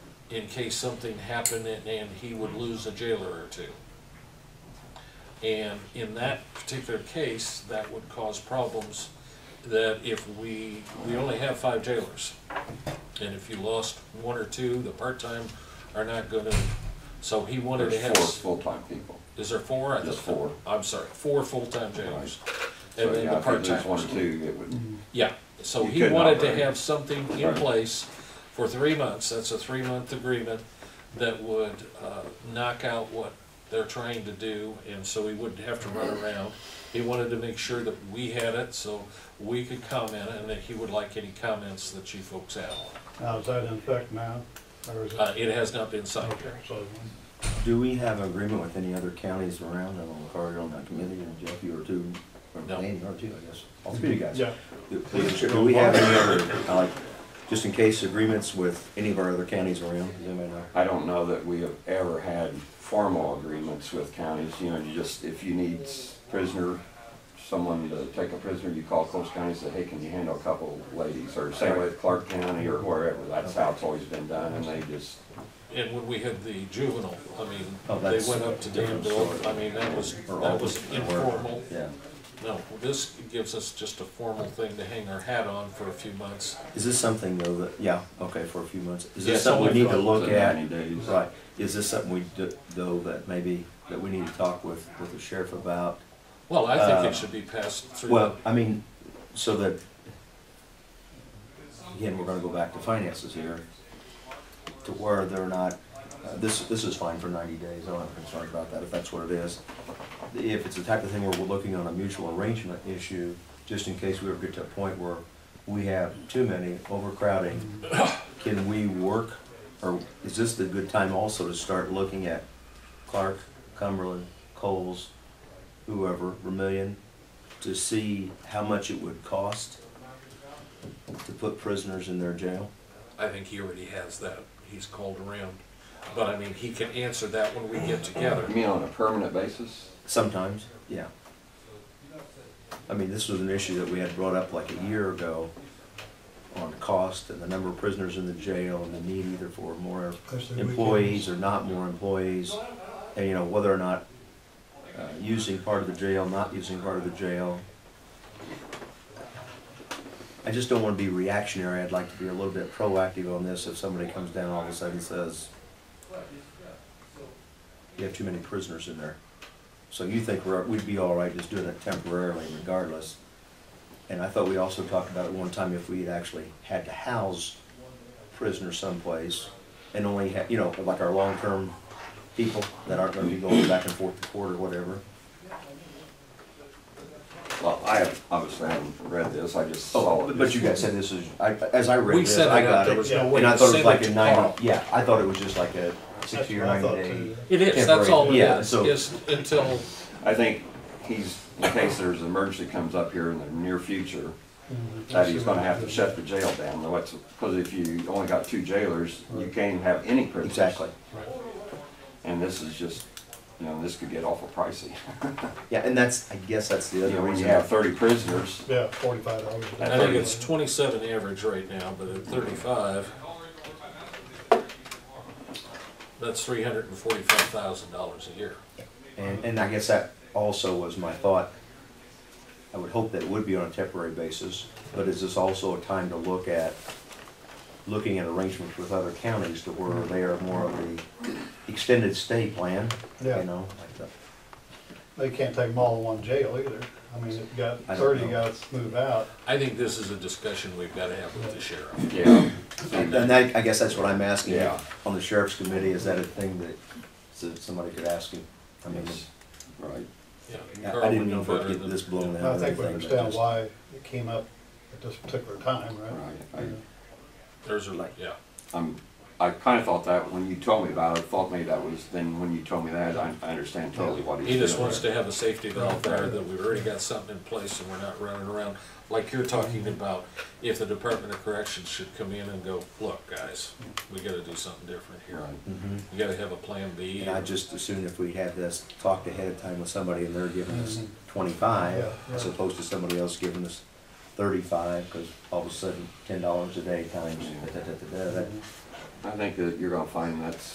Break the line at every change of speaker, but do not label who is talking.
in case something happened and, and he would lose a jailer or two. And in that particular case, that would cause problems that if we, we only have five jailers. And if you lost one or two, the part-time are not gonna, so he wanted to have.
There's four full-time people.
Is there four? I
There's
thought-
four.
I'm sorry, four full-time jailers.
So,
And then the
yeah, if you lose one
part-timers.
or two, it would,
Mm-hmm.
Yeah, so
You
he
couldn't
wanted to
operate.
have something in
Right.
place for three months, that's a three-month agreement that would, uh, knock out what they're trying to do, and so he wouldn't have to run around. He wanted to make sure that we had it, so we could comment, and that he would like any comments that you folks have.
Now, is that in effect now, or is it?
Uh, it has not been signed
Okay,
yet.
so,
Do we have agreement with any other counties around? I don't know if you're on that committee, and Jeff, you are too, or
No.
Danny, you are too, I guess. All three of you guys.
yeah,
Do do- do we have any other, uh, like, just in case agreements with any of our other counties around? Does anybody know?
I don't know that we have ever had formal agreements with counties, you know, you just, if you need prisoner, someone to take a prisoner, you call Coles County and say, hey, can you handle a couple ladies, or same with Clark County or wherever, that's how it's always been done, and they just,
And when we had the juvenile, I mean,
Oh,
they
that's
went up to
different
Danville,
story.
I mean, that was,
Or all
that was
just- or-
informal.
Yeah.
No, this gives us just a formal thing to hang our hat on for a few months.
Is this something though that, yeah, okay, for a few months? Is
Yeah,
this something we need to
something
look
for
at?
90 days.
Right. Is this something we, do- though, that maybe, that we need to talk with, with the sheriff about?
Well, I think
Uh,
it should be passed through.
Well, I mean, so that, again, we're gonna go back to finances here, to where they're not, uh, this, this is fine for ninety days, I'm not concerned about that, if that's what it is. If it's the type of thing where we're looking on a mutual arrangement issue, just in case we ever get to a point where we have too many overcrowding, can we work, or is this the good time also to start looking at Clark, Cumberland, Coles, whoever, Vermillion, to see how much it would cost to put prisoners in their jail?
I think he already has that. He's called around. But I mean, he can answer that when we get together.
you mean on a permanent basis?
Sometimes, yeah. I mean, this was an issue that we had brought up like a year ago on cost and the number of prisoners in the jail and the need either for more employees or not more employees. And, you know, whether or not uh, using part of the jail, not using part of the jail. I just don't want to be reactionary. I'd like to be a little bit proactive on this if somebody comes down all of a sudden and says, you have too many prisoners in there. So you think we're, we'd be all right just doing it temporarily regardless. And I thought we also talked about at one time if we had actually had to house prisoners someplace and only had, you know, like our long-term people that aren't gonna be going back and forth to court or whatever.
Well, I have, obviously haven't read this, I just saw
Oh,
it.
but you guys said this is, I, as I read
We
this,
set
I
it up.
got
There was
it.
no way
And I
to
thought it
send
was like
it
a
tomorrow.
ninety, yeah, I thought it was just like a
that's
sixty
what
or
I
ninety
thought
day.
too.
It is, that's all it
Temporary, yeah,
is,
so-
is until,
I think he's, in case there's an emergency comes up here in the near future,
Mhm.
that he's gonna have to shut the jail down, though it's, because if you only got two jailers, you can't even have any prisoners.
Exactly.
And this is just, you know, this could get awful pricey.
Yeah, and that's, I guess that's the
You
other
know, when you
reason.
have thirty prisoners,
Yeah, forty-five dollars.
I think it's twenty-seven average right now, but at thirty-five, that's three hundred and forty-five thousand dollars a year.
And, and I guess that also was my thought. I would hope that it would be on a temporary basis, but is this also a time to look at, looking at arrangements with other counties to where they are more of the extended stay plan?
Yeah.
You know, like the,
They can't take them all in one jail either. I mean, if you got
I don't
thirty
know.
guys move out,
I think this is a discussion we've gotta have with the sheriff.
yeah.
and that, I guess that's what I'm asking.
Yeah.
On the sheriff's committee, is that a thing that, so somebody could ask him? I mean,
Right.
Yeah,
I-
Carl
I
would
didn't
know
mean for it
better
to get
than-
this blown out.
I think we
or anything, but
understand
just-
why it came up at this particular time, right?
Right,
There's a,
Like-
yeah.
I, I'm, I kinda thought that when you told me about it, I thought maybe that was, then when you told me that, I, I understand totally what he's
He
doing.
just wants to have a safety valve there, that we've already got something in place and we're not running around, like you're talking about, if the Department of Corrections should come in and go, look, guys, we gotta do something different here.
Right.
Mhm.
We gotta have a plan B.
And I just assumed if we had this talked ahead of time with somebody and they're giving us twenty-five,
Mm-hmm. Yeah,
as
yeah.
opposed to somebody else giving us thirty-five, because all of a sudden, ten dollars a day times, da, da, da, da, da, that
I think that you're gonna find that's